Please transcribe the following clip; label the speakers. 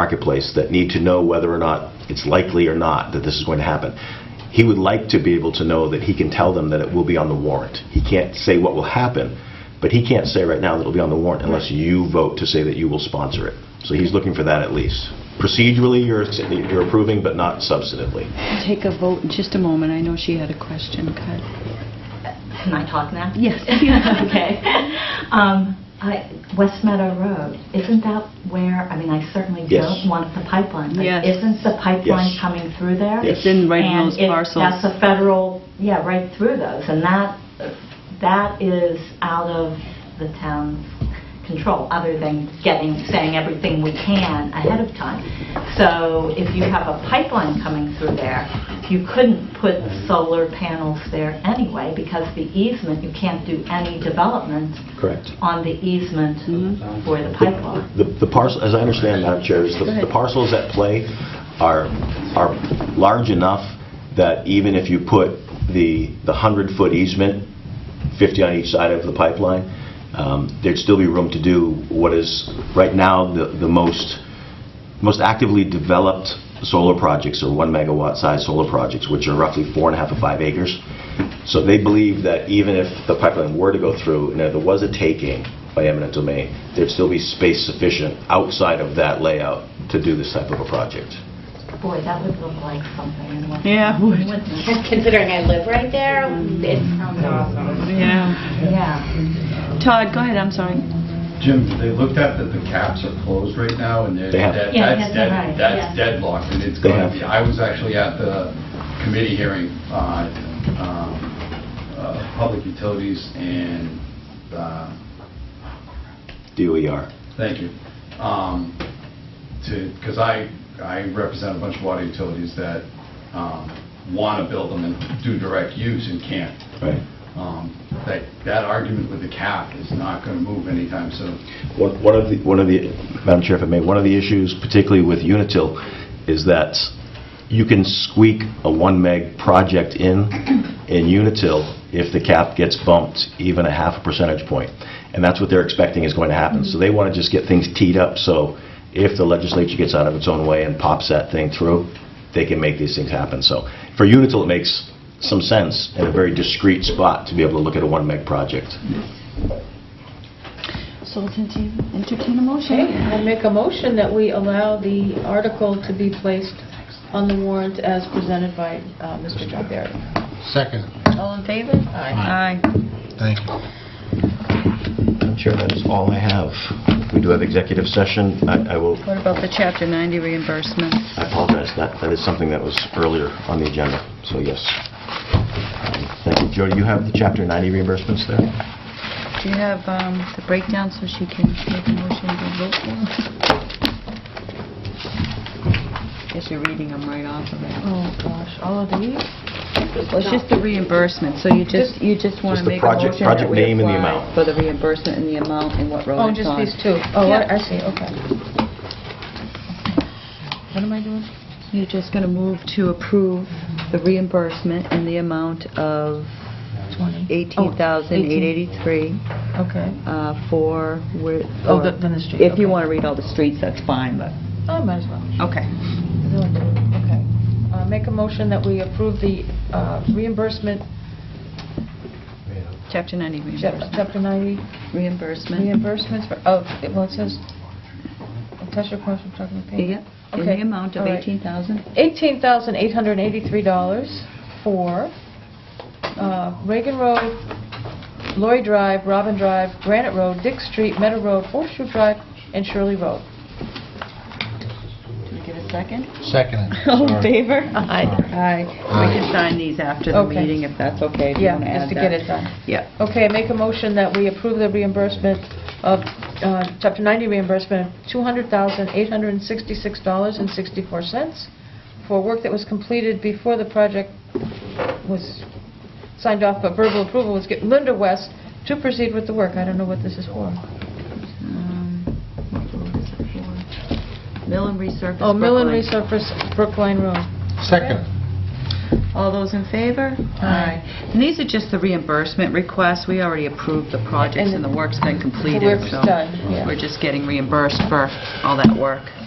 Speaker 1: marketplace that need to know whether or not it's likely or not that this is going to happen. He would like to be able to know that he can tell them that it will be on the warrant. He can't say what will happen, but he can't say right now that it'll be on the warrant unless you vote to say that you will sponsor it. So he's looking for that at least. Procedurally, you're you're approving, but not substantively.
Speaker 2: Take a vote in just a moment. I know she had a question. Cut.
Speaker 3: Can I talk now?
Speaker 2: Yes.
Speaker 3: Okay. Um, I- West Meadow Road, isn't that where, I mean, I certainly
Speaker 1: Yes.
Speaker 3: don't want the pipeline. but
Speaker 2: Yes.
Speaker 3: Isn't the pipeline
Speaker 1: Yes.
Speaker 3: coming through there?
Speaker 1: Yes.
Speaker 2: It's in right in those
Speaker 3: And if that's
Speaker 2: parcels.
Speaker 3: a federal, yeah, right through those, and that, that is out of the town's control, other than getting, saying everything we can ahead of time. So if you have a pipeline coming through there, you couldn't put solar panels there anyway, because the easement, you can't do any development
Speaker 1: Correct.
Speaker 3: on the easement
Speaker 2: Mm-hmm.
Speaker 3: for the pipeline.
Speaker 1: The the parcel, as I understand, Madam Chair, is the
Speaker 2: Go ahead.
Speaker 1: the parcels at play are, are large enough that even if you put the, the 100-foot easement, 50 on each side of the pipeline, um, there'd still be room to do what is, right now, the, the most, most actively developed solar projects are one megawatt size solar projects, which are roughly four and a half to five acres. So they believe that even if the pipeline were to go through, and if there was a taking by eminent domain, there'd still be space sufficient outside of that layout to do this type of a project.
Speaker 3: Boy, that would look like something in West.
Speaker 2: Yeah, it would.
Speaker 3: Wouldn't it?
Speaker 4: Considering I live right there, it sounds awesome.
Speaker 2: Yeah.
Speaker 3: Yeah.
Speaker 2: Todd, go ahead, I'm sorry.
Speaker 5: Jim, they looked at that the caps are closed right now, and they're,
Speaker 1: They have.
Speaker 5: that-
Speaker 3: Yeah,
Speaker 5: that's
Speaker 3: yeah,
Speaker 5: dead-
Speaker 3: right, yeah.
Speaker 5: that's deadlocked, and it's
Speaker 1: They
Speaker 5: going
Speaker 1: have.
Speaker 5: to be, I was actually at the committee hearing, uh, um, uh, Public Utilities and, uh,
Speaker 1: DOER.
Speaker 5: Thank you. Um, To, because I, I represent a bunch of water utilities that want to build them and do direct use and can't.
Speaker 1: Right.
Speaker 5: Um, That, that argument with the cap is not going to move anytime soon.
Speaker 1: One one of the, one of the, Madam Chair, if I may, one of the issues, particularly with Unitil, is that you can squeak a one meg project in, in Unitil, if the cap gets bumped even a half a percentage point. And that's what they're expecting is going to happen. So they want to just get things teed up, so if the legislature gets out of its own way and pops that thing through, they can make these things happen. So for Unitil, it makes some sense in a very discrete spot to be able to look at a one meg project.
Speaker 2: So let's entertain entertain a motion.
Speaker 6: Okay, I make a motion that we allow the article to be placed on the warrant as presented by uh, Mr. John Barry.
Speaker 7: Second,
Speaker 6: All in favor? Aye.
Speaker 2: Aye.
Speaker 7: thank you.
Speaker 1: Madam Chair, that is all I have. We do have executive session. I I will,
Speaker 2: What about the Chapter 90 reimbursement?
Speaker 1: I apologize, that, that is something that was earlier on the agenda, so yes. Um, Thank you. Joe, do you have the Chapter 90 reimbursements there?
Speaker 2: Do you have um, the breakdown so she can make a motion to vote for? Guess you're reading them right off of it.
Speaker 6: Oh, gosh, all of these?
Speaker 2: Well, it's just the reimbursement, so you just, you just want
Speaker 1: Just
Speaker 2: to
Speaker 1: the
Speaker 2: make a
Speaker 1: project-
Speaker 2: motion
Speaker 1: project
Speaker 2: that we
Speaker 1: name and the
Speaker 2: apply
Speaker 1: amount.
Speaker 2: for the reimbursement and the amount and what road
Speaker 6: Oh,
Speaker 2: it's
Speaker 6: just
Speaker 2: on.
Speaker 6: these two. Oh, I I see, okay. What am I doing?
Speaker 2: You're just going to move to approve the reimbursement in the amount of Oh,
Speaker 6: Twenty.
Speaker 2: $18,883
Speaker 6: Okay.
Speaker 2: uh, for, where-
Speaker 6: Oh,
Speaker 2: or-
Speaker 6: the- then the street,
Speaker 2: If you
Speaker 6: okay.
Speaker 2: want to read all the streets, that's fine, but,
Speaker 6: Oh, might as well.
Speaker 2: okay.
Speaker 6: Okay. Uh, Make a motion that we approve the uh, reimbursement,
Speaker 2: Chapter 90
Speaker 6: chap-
Speaker 2: reimbursement.
Speaker 6: Chapter 90
Speaker 2: Reimbursement.
Speaker 6: reimbursements for, oh, it- well, it says, attach your question, document
Speaker 2: Yeah,
Speaker 6: payment.
Speaker 2: in the
Speaker 6: Okay,
Speaker 2: amount of
Speaker 6: all right.
Speaker 2: $18,000.
Speaker 6: $18,883 for uh, Reagan Road, Lori Drive, Robin Drive, Granite Road, Dick Street, Meadow Road, Horseshoe Drive, and Shirley Road.
Speaker 2: Can I get a second?
Speaker 7: Second.
Speaker 2: All in favor?
Speaker 6: Aye.
Speaker 2: Aye. We can sign these after the
Speaker 6: Okay.
Speaker 2: meeting if that's okay. if you
Speaker 6: Yeah,
Speaker 2: wanna
Speaker 6: just
Speaker 2: add
Speaker 6: to get
Speaker 2: that.
Speaker 6: it done.
Speaker 2: Yeah.
Speaker 6: Okay, I make a motion that we approve the reimbursement of, uh, Chapter 90 reimbursement of $200,866.64 for work that was completed before the project was signed off, but verbal approval was given, Linda West, to proceed with the work. I don't know what this is for.
Speaker 2: Um, what road is it for? Mill and resurface.
Speaker 6: Oh, mill and
Speaker 2: Brookline.
Speaker 6: resurface Brookline Road.
Speaker 7: Second.
Speaker 2: All those in favor?
Speaker 6: Aye.
Speaker 2: And these are just the reimbursement requests. We already approved the projects
Speaker 6: And
Speaker 2: and the work's been completed.
Speaker 6: work's
Speaker 2: so
Speaker 6: done, yeah.
Speaker 2: We're just getting reimbursed for all that work.